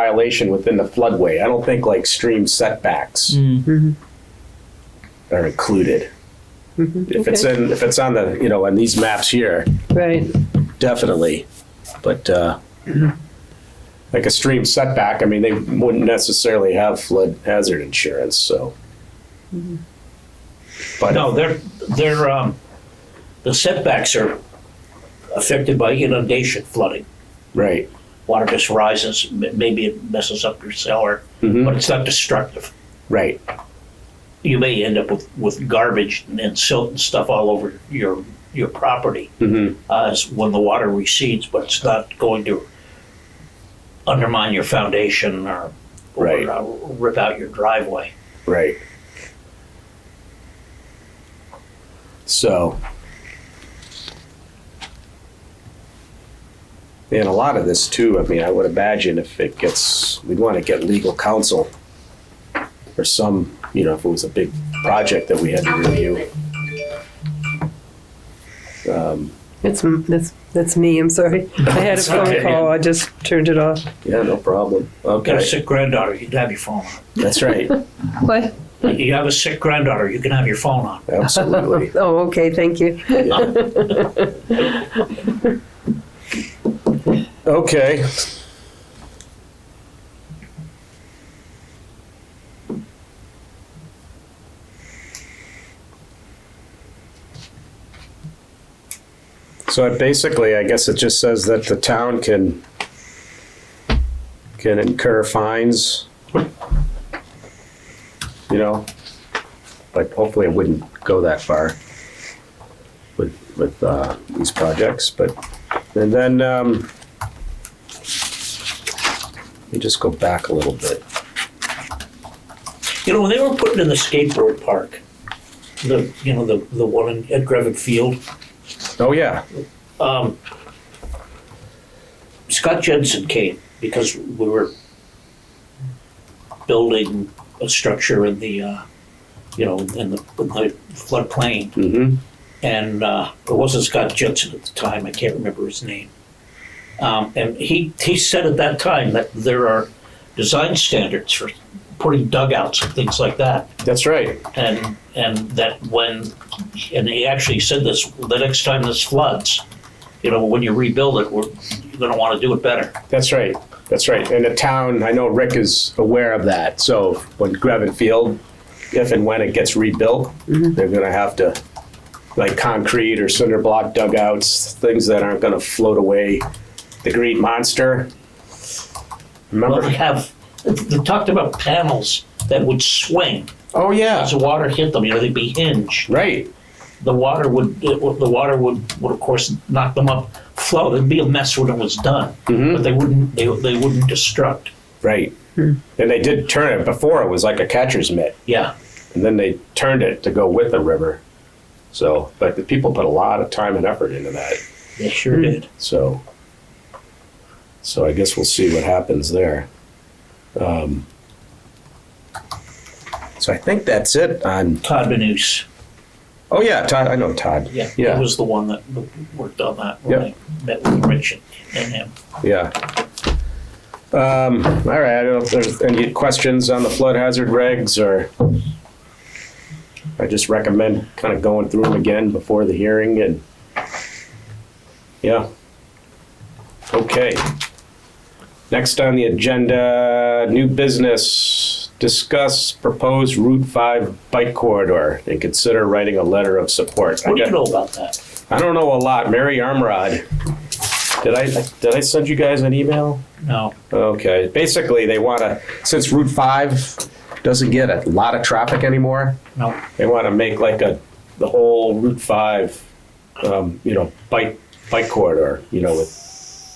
violation within the floodway. I don't think like stream setbacks are included. If it's Okay. in, if it's on the, you know, on these maps here, Right, definitely. But uh, like a stream setback, I mean, they wouldn't necessarily have flood hazard insurance, so. But No, they're, they're, um, the setbacks are affected by inundation flooding. right, Water just rises, m- maybe it messes up your cellar, Hmm. but it's not destructive. Mm-hmm. right, You may end up with, with garbage and silt and stuff all over your, your property Mm-hmm. uh, as when the water recedes, but it's not going to undermine your foundation or, or Right. uh, rip out your driveway. right. So. And a lot of this too, I mean, I would imagine if it gets, we'd want to get legal counsel or some, you know, if it was a big project that we had to review. it's, that's, that's me, I'm sorry. I had a It's phone okay. call, I just turned it off. Yeah, no problem. Got a Okay, sick granddaughter, you can have your phone that's right. What? on. You have a sick granddaughter, you can have your phone on. Absolutely. Oh, okay, thank you. Yeah. Okay. So it basically, I guess it just says that the town can can incur fines. You know, but hopefully it wouldn't go that far with, with, uh, these projects, but, and then, um, let me just go back a little bit. You know, when they were putting in the skateboard park, the, you know, the, the one in- at Grevitt Field, Oh, yeah, um, Scott Jensen came because we were building a structure in the, uh, you know, in the, in the floodplain. mm-hmm, And, uh, it wasn't Scott Jensen at the time, I can't remember his name. Um, and he, he said at that time that there are design standards for putting dugouts and things like that that's right. and and that when and he actually said this the next time this floods you know when you rebuild it we're you're going to want to do it better That's right. That's right. And the town, I know Rick is aware of that. So when Gravit Field, if and when it gets rebuilt, they're gonna have to, like concrete or cinder block dugouts, things that aren't gonna float away. The Green Monster. well, they Remember? have they talked about panels that would swing Oh, yeah, as the water hit them you know they'd be hinged right. the water would it, would- the water would would of course knock them up flow it'd be a mess when it was done but they wouldn't they, they wouldn't destruct Right. And they did turn it before, it was like a catcher's mitt, yeah and then they turned it to go with the river. So, but the people put a lot of time and effort into that, they sure did so. So I guess we'll see what happens there. Um, So I think that's it on, todd Benuse, oh yeah, Todd, I know Todd. yeah, Yeah. he was the one that worked on that when Yep. i met with rich and- and him Yeah. Um, all right, I don't know if there's any questions on the flood hazard regs or I just recommend kind of going through them again before the hearing and yeah. Okay. Next on the agenda, new business, discuss proposed Route 5 bike corridor and consider writing a letter of support. I What do got- you know about that? I don't know a lot. Mary Armrod. Did I did I send you guys an email? No. Okay. Basically, they want to since Route Five doesn't get a lot of traffic anymore, No. they want to make like a the whole Route Five, um, you know, bike bike corridor. You know, with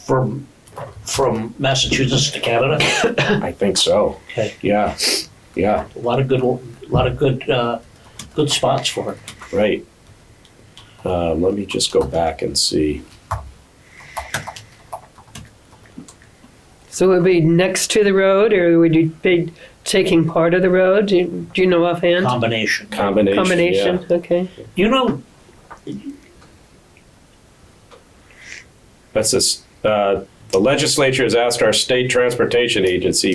From from Massachusetts to Canada. I think so. Okay. Yeah, yeah, A lot of good a lot of good uh, good spots for it. right. Um, let me just go back and see. So it would be next to the road, or would you be taking part of the road? Do you- do you know offhand? Combination. Combination. yeah. Combination, okay. You know That's this. Uh, The legislature has asked our state transportation agency